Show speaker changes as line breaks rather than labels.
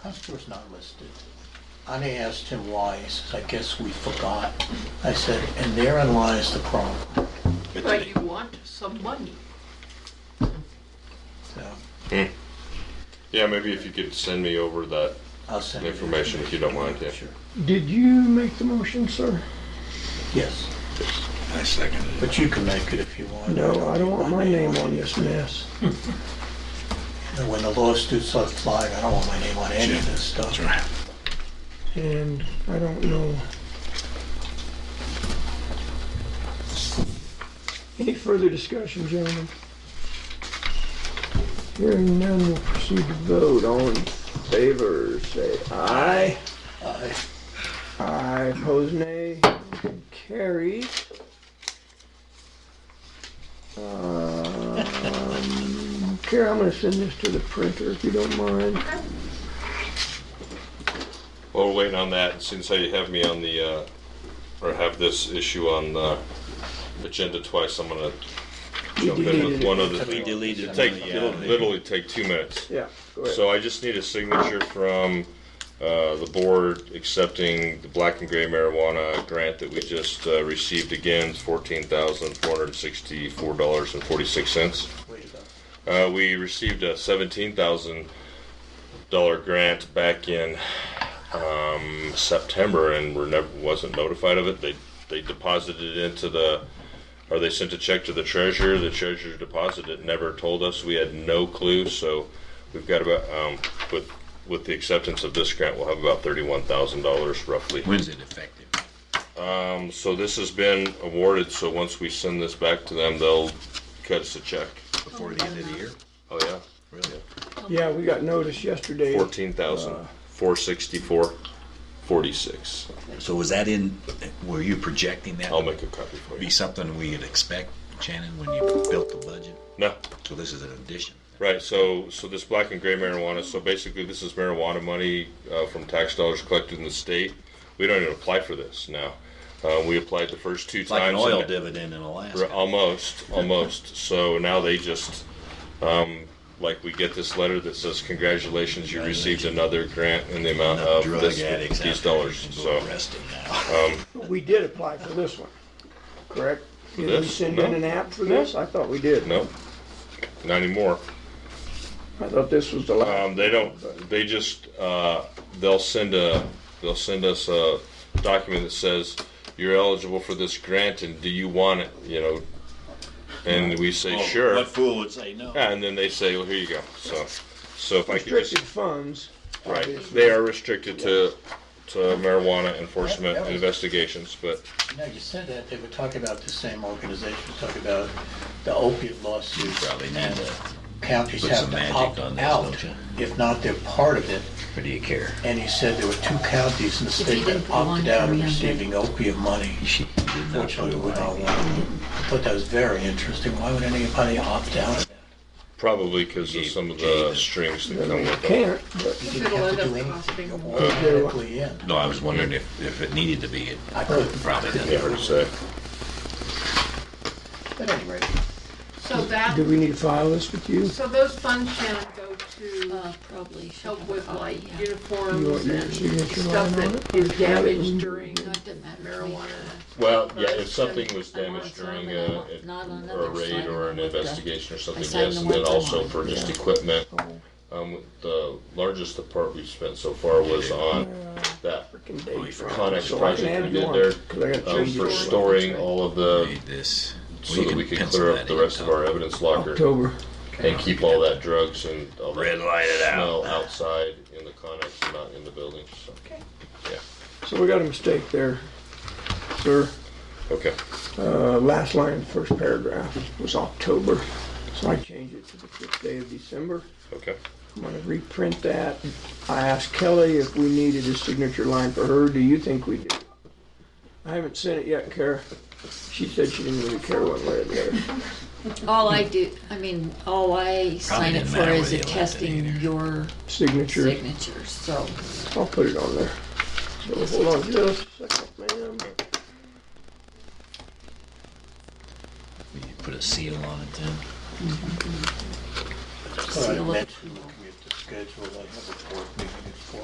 Customer's not listed. And I asked him why, he says, I guess we forgot. I said, and therein lies the problem.
But you want some money.
So
Yeah, maybe if you could send me over that
I'll send it.
information if you don't mind, yeah.
Sure.
Did you make the motion, sir?
Yes,
I second it.
but you can make it if you want.
No, I don't want my name on
it.
this mess.
And when the lawsuits start flying, I don't want my name on any of this stuff.
That's right.
And I don't know. Any further discussion, gentlemen? Hearing none, we'll proceed to vote. All in favor, say aye.
I-
Aye, opposed nay. Motion Carries. Um, Kara, I'm gonna send this to the printer if you don't mind.
While we're waiting oh, on that, since I have me on the, uh, or have this issue on the agenda twice, I'm gonna
We
jump in
deleted
with
it.
one other
We
thing.
deleted
It'll Take,
one, yeah.
it'll literally take two minutes.
Yeah, go ahead.
So I just need a signature from uh, the board accepting the black and gray marijuana grant that we just uh, received again, fourteen thousand four hundred sixty-four dollars and forty-six cents.
Way to go.
Uh, we received a seventeen thousand dollar grant back in um, September, and were never wasn't notified of it. They they deposited it into the, or they sent a check to the treasurer. The treasurer deposited it, never told us. We had no clue. So we've got about um, with with the acceptance of this grant, we'll have about thirty one thousand dollars roughly.
When's it effective?
Um, so this has been awarded. So once we send this back to them, they'll cut us a check.
Before the end of the year?
Oh yeah.
Really?
Yeah, we got notice yesterday.
Fourteen thousand four sixty-four forty-six.
So was that in, were you projecting that?
I'll make a copy for
Be
you.
something we could expect, Shannon, when you built the budget?
No,
So this is an addition.
right, so, so this black and gray marijuana, so basically this is marijuana money, uh, from tax dollars collected in the state. We don't even apply for this now. Uh, we applied the first two
It's like an
times.
oil
and-
dividend in
Re-
Alaska.
Almost, almost. so now they just, um, like we get this letter that says, congratulations, you received another grant in the amount
Enough
of
drug
uh, this,
addicts out
these
there
dollars,
can go
so. Oh,
arrested now.
We did apply for this one, correct? Did we
this?
send in
No.
an app for this? I thought we did.
No, not anymore.
I thought this was the
Um,
last.
they don't. They just uh, they'll send a they'll send us a document that says you're eligible for this grant and do you want it? You know, and we say
Oh,
sure.
What fool would say no?
Yeah, and then they say, well, here you go. So, so if I could
Restricted
just
funds.
right,
obviously.
they are restricted to to marijuana enforcement and investigations, but
Now, you said that, they were talking about the same organization, talking about the opiate lawsuits.
Probably need
And
to
counties
put
have
some
to
magic
opt
on this,
out,
don't you?
if not, they're part of it.
Or do you care?
And he said there were two counties in the
you
state
didn't
that
put one
opted out
for
of
me, I'm
receiving opiate money.
She did not
Fortunately,
do
we're
it.
not one. I thought that was very interesting. Why would anybody opt out? of that?
probably because of some of the strings that come with it.
Can't, but
You didn't have to
It'll
do
end up
anything.
costing
You're
more.
automatically in.
No, I was wondering if, if it needed to be, it
I couldn't.
probably
Yeah,
doesn't.
hard to say.
At any rate,
So that,
do we need to file this with you?
so those funds, Shannon, go to
Uh, probably. should
help
have
Oh, with
a copy,
like
You
yeah.
want
uniforms
your
and
signature
stuff
line on
that is
it? You have it
damaged
in-
during
No, it doesn't matter. to me.
marijuana.
Well, yeah,
Right.
if something was
I want
damaged
some
during uh,
and I
a,
want not on
or a
other
raid
side
or
of
an
the-
investigation or something,
signed
yes,
the
and then
ones I
also
want.
for just equipment. Um, the largest the part we spent so far was on that
Frickin'
Oh, you
date.
forgot.
Connex
So I can
project we
add
did
one,
there,
'cause I gotta
um,
change
for
it.
storing all of the,
Read this. Well,
so
you
that
can
we could
pencil
clear
that
up the
in,
rest of
Tom.
our evidence locker
October.
and keep all that drugs and all
Red light it
that
out.
smell outside in the Connex, and not in the building, so.
So we got a mistake there, sir.
Okay,
Uh, last line, first paragraph was October, so I changed it to the fifth day of December.
okay.
I'm gonna reprint that. I asked Kelly if we needed a signature line for her. Do you think we do? I haven't sent it yet, Kara. She said she didn't really care one way or the other.
All I do, I mean, all I sign it
didn't
for
matter
is
whether you liked it
attesting
either.
your
Signature,
signatures, so.
I'll put it on there. So hold on just a second, ma'am.
You put a seal on it then.
so I
Seal it.
mentioned what we had discussed. scheduled, I have a board meeting at four